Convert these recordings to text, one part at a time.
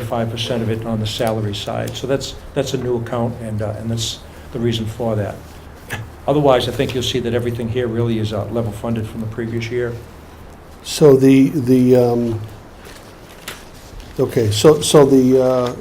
25% of it on the salary side. So that's, that's a new account, and, uh, and that's the reason for that. Otherwise, I think you'll see that everything here really is uh, level funded from the previous year. So the, the, um, okay, so, so the, uh,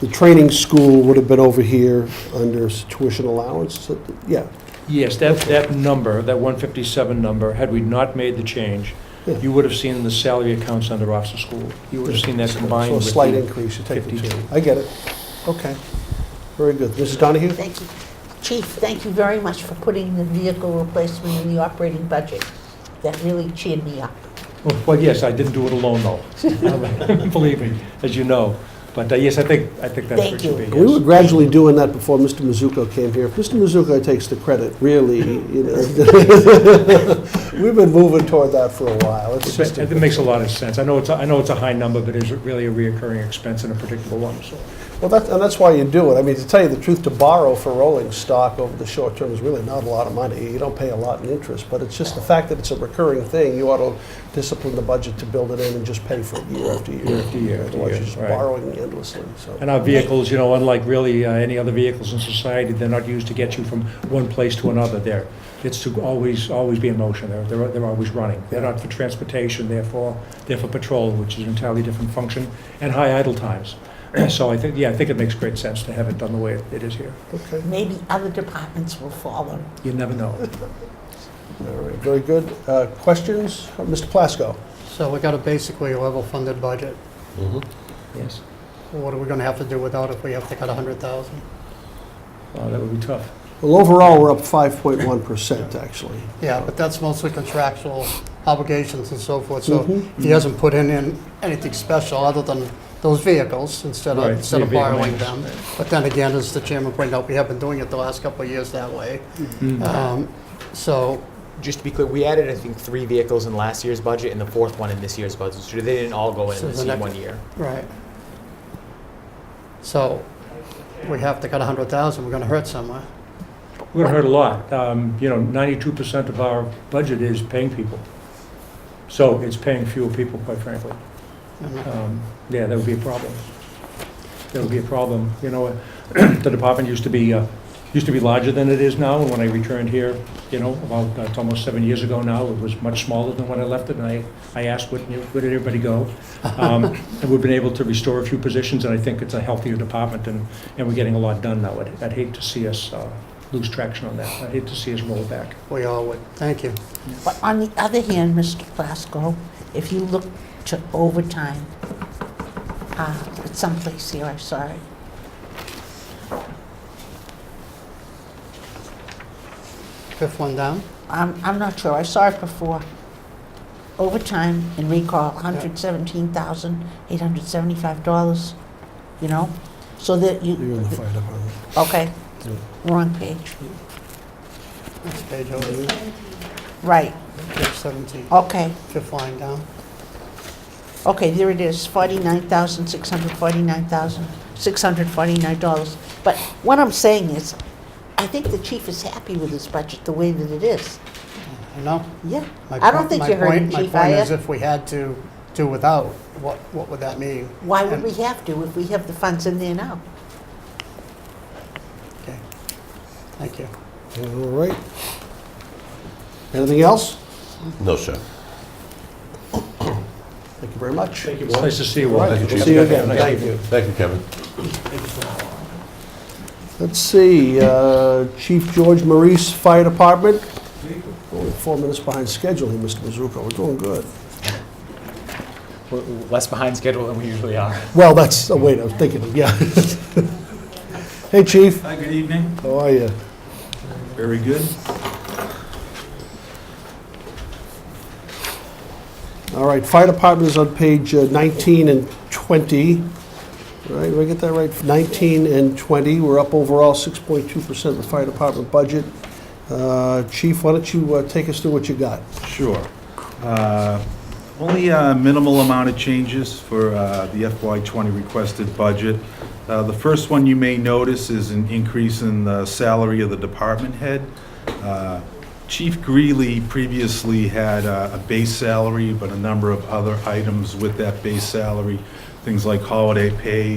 the training school would have been over here under s- tuition allowance, so- yeah. Yes, that, that number, that 157 number, had we not made the change, Yeah. you would have seen the salary accounts under officer school. You would have seen that combined So a with slight the increase, you take the two. 52. I get it. Okay. Very good. Mrs. Donahue? Thank you. Chief, thank you very much for putting the vehicle replacement in the operating budget. That really cheered me up. Well, yes, I didn't do it alone, though. Believe me, as you know. But uh, yes, I think, I think that's where it Thank you. should be. We were yes. gradually doing that before Mr. Mizuko came here. If Mr. Mizuko takes the credit, really, you know, we've been moving toward that for a while. It's It just, ma- It makes a lot of sense. I know it's, a- I know it's a high number, but it's really a reoccurring expense and a predictable one, so. well, that, and that's why you do it. I mean, to tell you the truth, to borrow for rolling stock over the short term is really not a lot of money. You don't pay a lot in interest, but it's just the fact that it's a recurring thing. You ought to discipline the budget to build it in and just pay for it year after year after year. after Otherwise, year, you're just right. borrowing endlessly, so. And our vehicles, you know, unlike really uh, any other vehicles in society, they're not used to get you from one place to another there. It's to always, always be in motion, they're, they're they're always running. They're not for transportation, they're for, they're for patrol, which is an entirely different function, and high idle times. So I think, yeah, I think it makes great sense to have it done the way it is here. Okay. Maybe other departments will follow. You never know. All right, very good. Uh, Questions? Mr. Plasko? So we got a basically level-funded budget. Yes. What are we going to have to do without if we have to cut 100,000? Wow, Oh, that would be tough. Well, overall, we're up 5.1%, actually. Yeah, but that's mostly contractual obligations and so forth, so Mhm. he hasn't put in in anything special other than those vehicles instead of, Right, instead of vehicle borrowing maintenance. them. But then again, as the chairman pointed out, we have been doing it the last couple of years that way. Mm-hmm. Um, So, Just to be clear, we added, I think, three vehicles in last year's budget and the fourth one in this year's budget. So they didn't all go in So in the the same next- one year. right. So we have to cut 100,000, we're going to hurt somewhere. We're gonna hurt a lot. Um, You know, ninety-two percent of our budget is paying people. So it's paying fewer people, quite frankly. And Um, Yeah, that would be a problem. That would be a problem. You know, the department used to be, uh, used to be larger than it is now. And When I returned here, you know, about, uh, it's almost seven years ago now, it was much smaller than when I left it. And I, I asked, where did where did everybody go? Um, And we've been able to restore a few positions, and I think it's a healthier department, and, and we're getting a lot done now. I'd- I'd hate to see us uh, lose traction on that. I'd hate to see us roll back. We all would, thank you. But on the other hand, Mr. Plasko, if you look to overtime, uh, it's someplace here, I'm sorry. Fifth one down? I'm, I'm not sure, I saw it before. Overtime and recall, $117,875, you know? So that You're in you, the fire department. okay, Yeah. wrong page. Next page over, Right, page 17, okay, fifth line down. okay, there it is, forty-nine thousand, six hundred forty-nine thousand, six hundred forty-nine dollars. But what I'm saying is, I think the chief is happy with his budget the way that it is. I know. Yeah, My I don't point- think my you heard him, point- chief, My I point is if we had to do without, what, what would that mean? Why would we have to if we have the funds in there now? Okay. Thank you. All right. Anything else? No, sir. Thank you very much. Thank It's nice to see you all. Thank you, We'll Chief. see you again. Thank Thank you. Thank you, Kevin. Let's see, uh, Chief George Maurice, Fire Department. Only four minutes behind schedule here, Mr. Mizuko. We're doing good. We're we're less behind schedule than we usually are. Well, that's, oh, wait, I was thinking, of yeah. Hey, Chief, Hi, good evening. how are you? Very good. All right, Fire Department is on page uh, 19 and 20. Right, did I get that right? 19 and 20, we're up overall 6.2% of the Fire Department budget. Uh, Chief, why don't you uh, take us through what you got? Sure. Uh, Only a minimal amount of changes for uh, the FY20 requested budget. Uh, The first one you may notice is an increase in the salary of the department head. Uh, Chief Greeley previously had uh, a base salary, but a number of other items with that base salary things like holiday pay,